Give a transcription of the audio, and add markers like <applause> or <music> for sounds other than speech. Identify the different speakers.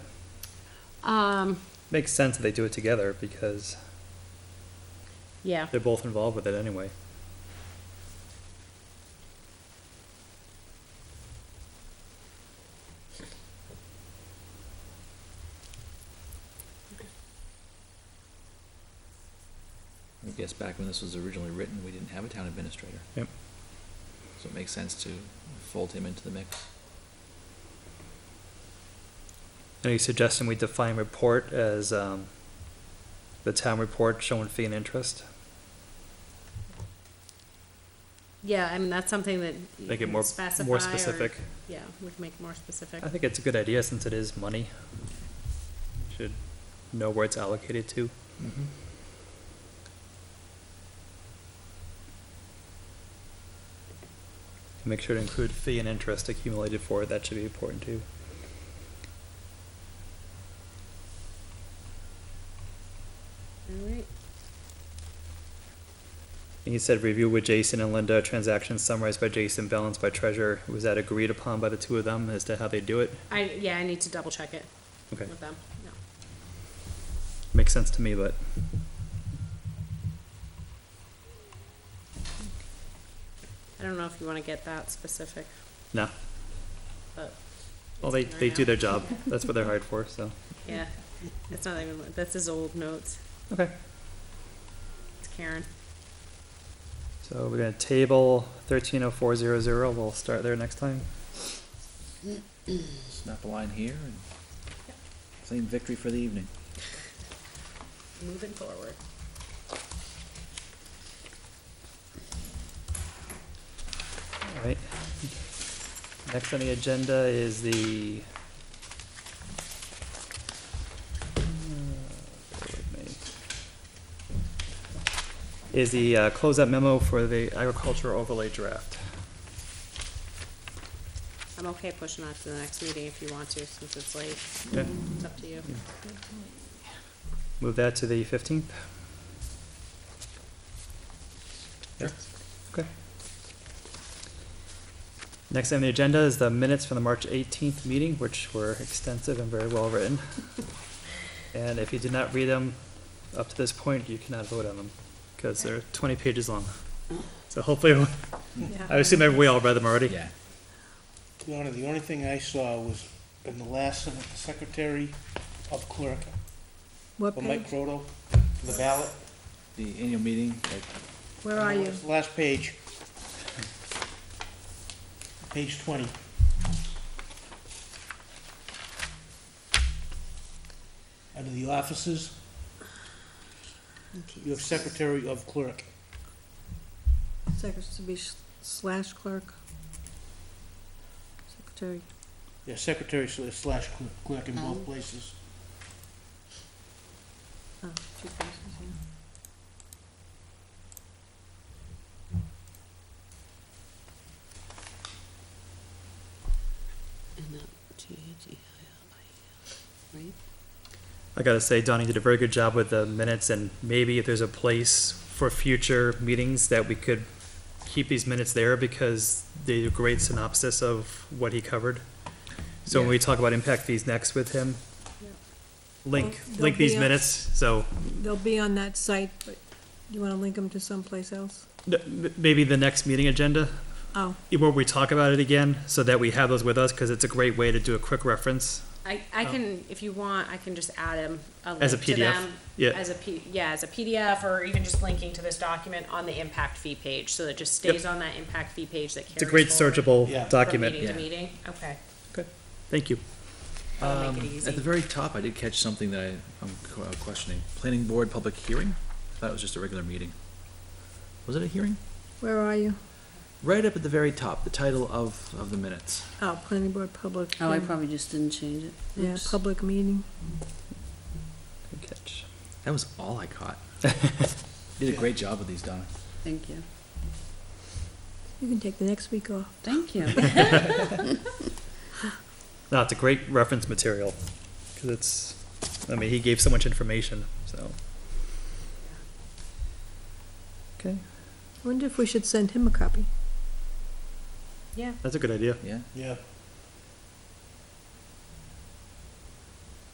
Speaker 1: Um,
Speaker 2: Makes sense that they do it together because
Speaker 1: yeah,
Speaker 2: they're both involved with it anyway.
Speaker 3: I guess back when this was originally written, we didn't have a town administrator,
Speaker 2: Yep.
Speaker 3: so it makes sense to fold him into the mix.
Speaker 2: Are you suggesting we define report as um, the town report showing fee and interest?
Speaker 1: yeah, I mean, that's something that. you
Speaker 2: Make it
Speaker 1: can
Speaker 2: more,
Speaker 1: specify or-
Speaker 2: more specific.
Speaker 1: Yeah, we can make it more specific.
Speaker 2: I think it's a good idea since it is money. Should know where it's allocated to. Make sure to include fee and interest accumulated for it, that should be important too.
Speaker 1: All right,
Speaker 2: And you said review with Jason and Linda, transactions summarized by Jason, balanced by treasurer. Was that agreed upon by the two of them as to how they do it?
Speaker 1: I, yeah, I need to double check it
Speaker 2: Okay,
Speaker 1: with them, no.
Speaker 2: makes sense to me, but
Speaker 1: I don't know if you wanna get that specific,
Speaker 2: no.
Speaker 1: but.
Speaker 2: Well, they,
Speaker 1: it's in
Speaker 2: they
Speaker 1: there
Speaker 2: do
Speaker 1: now.
Speaker 2: their job. That's what they're hired for, so.
Speaker 1: <laughs> Yeah, it's not even, that's his old notes,
Speaker 2: Okay.
Speaker 1: it's Karen.
Speaker 2: So we're gonna table thirteen oh four zero zero. We'll start there next time.
Speaker 3: Snap a line here and claim victory for the evening.
Speaker 1: Moving forward.
Speaker 2: All right. Next on the agenda is the. Uh, bear with me. uh, Is the uh, closeout memo for the agricultural overlay draft.
Speaker 1: I'm okay pushing that to the next meeting if you want to, since it's late,
Speaker 2: Okay.
Speaker 1: it's up to you.
Speaker 2: Move that to the fifteenth? Okay. Next on the agenda is the minutes from the March eighteenth meeting, which were extensive and very well written. And if you did not read them up to this point, you cannot vote on them, because they're twenty pages long. So hopefully, I assume every- we all read them already.
Speaker 3: Yeah.
Speaker 4: Donna, the only thing I saw was in the last sentence, the secretary of clerk,
Speaker 5: What
Speaker 4: for
Speaker 5: page?
Speaker 4: Mike Croto, for the ballot.
Speaker 3: The annual meeting, like,
Speaker 5: Where are you?
Speaker 4: It's the Last page. Page twenty. Under the offices, you have secretary of clerk.
Speaker 5: Secretary to be sh- slash clerk. Secretary.
Speaker 4: Yeah, secretary slash clerk in
Speaker 5: Um.
Speaker 4: both places.
Speaker 5: Oh, two places, yeah.
Speaker 2: I gotta say, Donnie did a very good job with the minutes, and maybe if there's a place for future meetings that we could keep these minutes there because they do a great synopsis of what he covered. So when we talk about impact fees next with him, link,
Speaker 5: Well,
Speaker 2: link
Speaker 5: they'll
Speaker 2: these
Speaker 5: be up-
Speaker 2: minutes, so
Speaker 5: They'll be on that site, but you wanna link them to someplace else?
Speaker 2: n- m- maybe the next meeting agenda,
Speaker 5: Oh,
Speaker 2: where we talk about it again, so that we have those with us, because it's a great way to do a quick reference.
Speaker 1: I, I
Speaker 2: Oh.
Speaker 1: can, if you want, I can just add them, a
Speaker 2: As a
Speaker 1: link to
Speaker 2: PDF?
Speaker 1: them.
Speaker 2: Yeah.
Speaker 1: As a P, yeah, as a PDF, or even just linking to this document on the impact fee page, so that it just
Speaker 2: Yep.
Speaker 1: stays on that impact fee page that carries
Speaker 2: It's a great
Speaker 1: forward
Speaker 2: searchable
Speaker 4: Yeah.
Speaker 1: From
Speaker 2: document.
Speaker 1: meeting to
Speaker 3: Yeah.
Speaker 1: meeting, okay,
Speaker 2: Thank you.
Speaker 1: that'll make it
Speaker 3: Um, at the
Speaker 1: easy.
Speaker 3: very top, I did catch something that I, I'm qu- uh, questioning. Planning board public hearing? I thought it was just a regular meeting. Was it a hearing?
Speaker 5: where are you?
Speaker 3: Right up at the very top, the title of, of the minutes.
Speaker 5: Oh, planning board public.
Speaker 6: Oh, I
Speaker 5: hearing.
Speaker 6: probably just didn't change it.
Speaker 5: Yeah,
Speaker 6: Oops.
Speaker 5: public meeting.
Speaker 2: Good catch.
Speaker 3: That was all I caught. You Did a great job with these, Donna.
Speaker 6: Thank you.
Speaker 5: You can take the next week off.
Speaker 6: Thank you.
Speaker 2: No, it's a great reference material because it's. I mean, he gave so much information. So. Okay,
Speaker 5: I wonder if we should send him a copy.
Speaker 1: Yeah,
Speaker 2: that's a good idea.
Speaker 3: Yeah,
Speaker 4: Yeah,